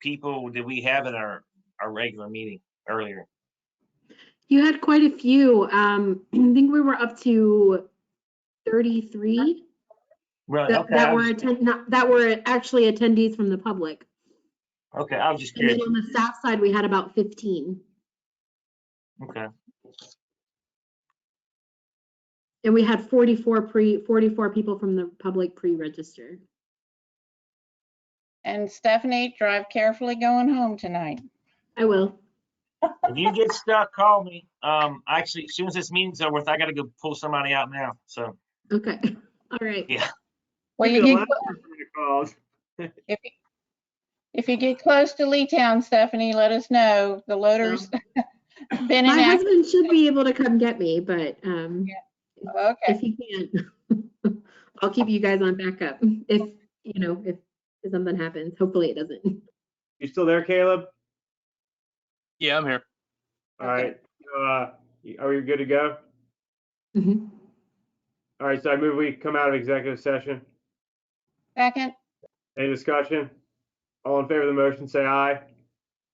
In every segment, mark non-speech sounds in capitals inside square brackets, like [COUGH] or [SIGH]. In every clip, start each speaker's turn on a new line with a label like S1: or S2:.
S1: people did we have in our, our regular meeting earlier?
S2: You had quite a few. Um, [CLEARS THROAT] I think we were up to 33
S1: Really?
S2: that,
S1: Okay,
S2: that
S1: I
S2: were
S1: was-
S2: attend, not, that were actually attendees from the public.
S1: Okay, I was just
S2: And then
S1: curious.
S2: on the staff side, we had about 15.
S1: Okay,
S2: And we had 44 pre, 44 people from the public pre-register.
S3: And Stephanie, drive carefully going home tonight.
S2: I will.
S1: if you get stuck, call me. Um, actually, as soon as this meeting's over, with, I gotta go pull somebody out now, so.
S2: Okay. [LAUGHS] All right.
S1: Yeah.
S3: Well, you
S4: You're the
S3: get,
S4: last person I called. [LAUGHS]
S3: if, you- if you get close to Lee Town, Stephanie, let us know. The loader's [LAUGHS] been
S2: My
S3: inactive.
S2: husband should be able to come get me, but, um,
S3: Okay,
S2: if he can't, [LAUGHS] I'll keep you guys on backup if, you know, if if something happens. Hopefully it doesn't. [LAUGHS]
S4: You still there, Caleb?
S5: Yeah, I'm here.
S4: All
S3: Okay.
S4: right, so, uh, y- are we good to go?
S2: Mhm.
S4: All right, so I move we come out of executive session.
S3: second,
S4: Any discussion? All in favor of the motion, say aye.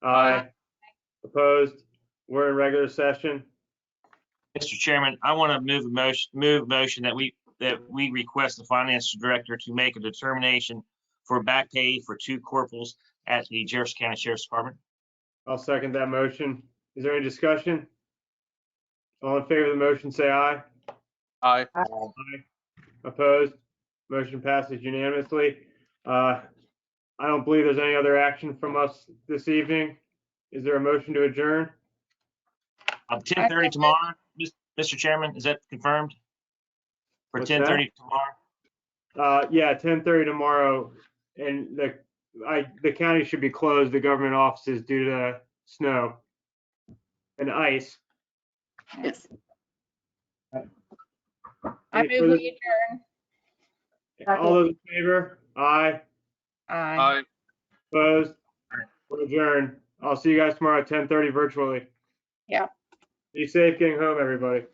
S5: Aye.
S4: Opposed? We're in regular session.
S1: Mr. Chairman, I want to move a motion, move motion that we, that we request the finance director to make a determination for back pay for two corporals at the Jefferson County Sheriff's Department.
S4: I'll second that motion. Is there any discussion? All in favor of the motion, say aye.
S5: Aye.
S4: Opposed? Motion passes unanimously. Uh, I don't believe there's any other action from us this evening. Is there a motion to adjourn?
S1: Um, ten thirty tomorrow, Mis- Mr. Chairman, is that confirmed? For
S4: What's
S1: ten
S4: that?
S1: thirty tomorrow?
S4: Uh, yeah, ten thirty tomorrow, and the, I, the county should be closed, the government offices due to snow and ice.
S2: Yes.
S3: I
S4: Any
S3: move
S4: further-
S3: we adjourn.
S4: All those in favor? Aye,
S3: Aye.
S5: Aye.
S4: opposed, We're adjourned. I'll see you guys tomorrow at ten thirty virtually.
S3: Yeah.
S4: Be safe getting home, everybody.